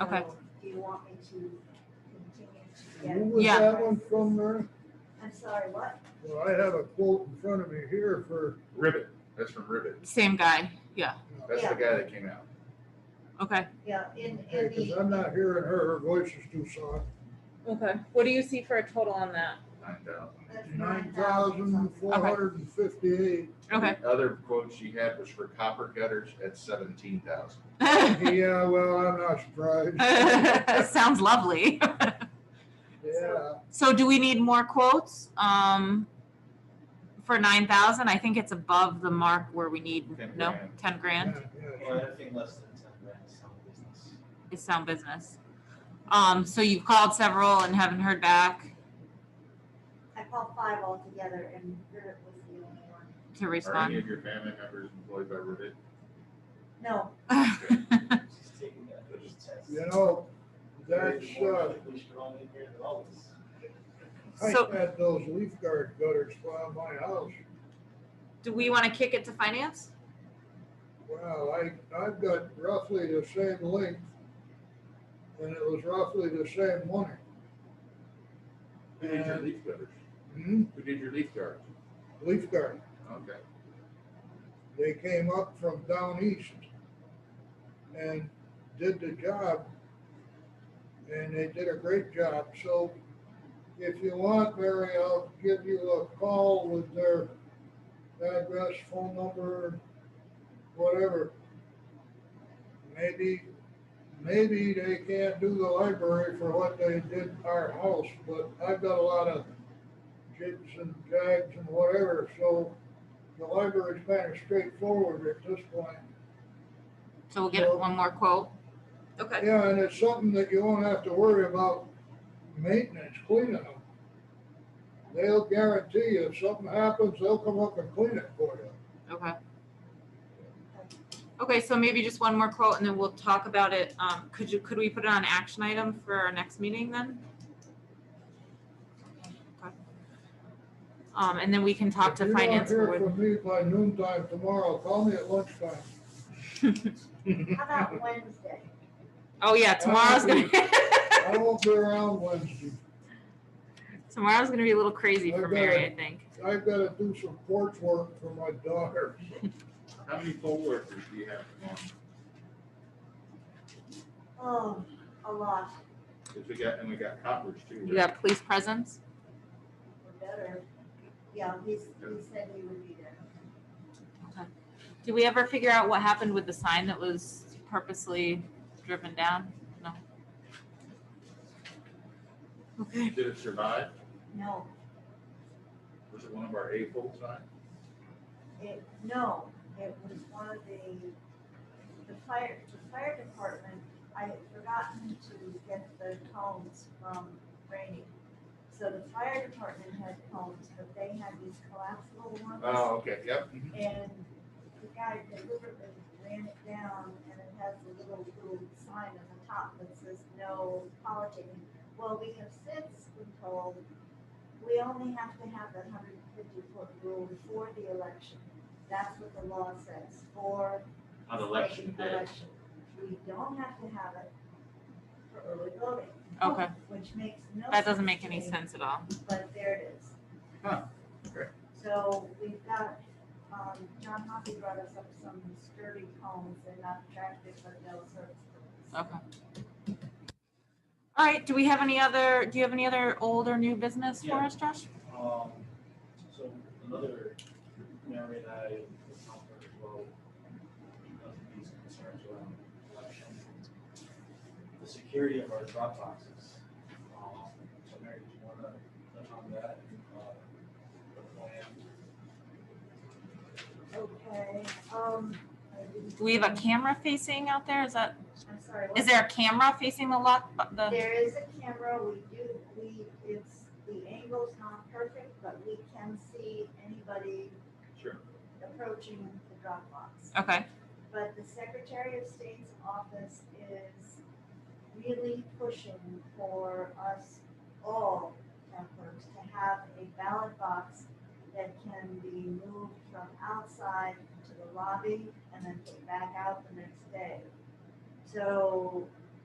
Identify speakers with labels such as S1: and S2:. S1: Okay.
S2: So Do you want me to continue to
S3: Who
S2: get,
S3: was
S1: Yeah.
S3: that one from there?
S2: I'm sorry, what?
S3: Well, I have a quote in front of me here for,
S4: Ribbit, that's from Ribbit.
S1: Same guy. Yeah.
S4: That's the guy that came out.
S1: Okay.
S2: Yeah, in, in
S3: because
S2: the,
S3: I'm not hearing her, her voice is too soft.
S1: Okay. What do you see for a total on that?
S4: Nine thousand.
S2: that's
S3: Nine
S2: 9,000
S3: thousand
S2: something.
S3: four hundred and fifty-eight.
S1: Okay.
S4: The other quote she had was for copper gutters at seventeen thousand.
S3: Yeah, well, I'm not surprised.
S1: Sounds lovely.
S3: Yeah,
S1: so do we need more quotes? Um, for nine thousand, I think it's above the mark where we need,
S4: 10
S1: no,
S4: grand.
S1: ten
S3: yeah,
S1: grand
S3: yeah.
S5: Well, anything less than ten grand is not business.
S1: is sound business. Um, so you've called several and haven't heard back
S2: I called five altogether and Ribbit was the only one.
S1: to
S4: Are any
S1: respond.
S4: of your family members employed by Ribbit?
S2: No,
S5: She's taking that first test.
S3: You know, that's,
S5: Maybe more
S3: uh,
S5: likely We should all be here than all of us.
S3: I
S1: So-
S3: had those leaf guard gutters by my house.
S1: do we want to kick it to finance?
S3: Well, I, I've got roughly the same length, and it was roughly the same money.
S4: Who did your leaf gutters?
S3: Hmm,
S4: Who did your leaf gutters?
S3: leaf guard,
S4: Okay.
S3: they came up from down east and did the job, and they did a great job, so if you want, Mary, I'll give you a call with their address, phone number, whatever. Maybe, maybe they can't do the library for what they did our house, but I've got a lot of jigs and jags and whatever, so the library's kind of straightforward at this point.
S1: So we'll get one more quote. Okay.
S3: Yeah, and it's something that you won't have to worry about maintenance, cleaning them. They'll guarantee you if something happens, they'll come up and clean it for you.
S1: Okay. Okay, so maybe just one more quote and then we'll talk about it. Um, could you, could we put it on action item for our next meeting then? Okay. Um, and then we can talk to finance
S3: If you
S1: board.
S3: don't hear from me by noon time tomorrow, call me at lunchtime.
S2: how about Wednesday?
S1: Oh, yeah, tomorrow's gonna,
S3: I won't be around Wednesday.
S1: tomorrow's gonna be a little crazy for Mary, I think.
S3: I've got to do some porch work for my daughter.
S4: How many poll workers do you have tomorrow?
S2: Oh, a lot,
S4: Cause we got, and we got coppers too. right?
S1: We got police presence.
S2: or better. Yeah, he's, he said he would be there.
S1: Did we ever figure out what happened with the sign that was purposely driven down? No. Okay.
S4: Did it survive?
S2: No,
S4: Was it one of our A-fold signs?
S2: it, no, it was one of the, the fire, the fire department, I had forgotten to get the cones from Rainy. So the fire department had cones, but they had these collapsible ones.
S4: Oh, okay, yep.
S2: And the guy deliberately ran it down and it has a little, little sign on the top that says no politicking. Well, we have since been told, we only have to have the hundred and fifty foot rule before the election. That's what the law says for.
S4: On election
S2: the
S4: day.
S2: election. We don't have to have it for early voting.
S1: Okay.
S2: Which makes no.
S1: That doesn't make
S2: to
S1: any
S2: me
S1: sense at all.
S2: but there it is.
S4: Huh, okay.
S2: So we've got, um, John Hoppy brought us up some sturdy cones, they're not attractive, but they'll serve.
S1: Okay. All right, do we have any other, do you have any other old or new business for
S5: Yeah.
S1: us, Josh?
S5: Um, so another, Mary and I, the comfort as well, because of these concerns around election. The security of our drop boxes. Um, So Mary, do you wanna touch on that and, uh, the plan?
S2: Okay, um, I didn't-
S1: Do we have a camera facing out there? Is that,
S2: I'm sorry. what-
S1: is there a camera facing the lock, bu- the,
S2: There is a camera, we do, we, it's, the angle's not perfect, but we can see anybody
S4: Sure.
S2: approaching the drop box.
S1: okay,
S2: But the Secretary of State's office is really pushing for us all town clerks to have a ballot box that can be moved from outside to the lobby and then put back out the next day. So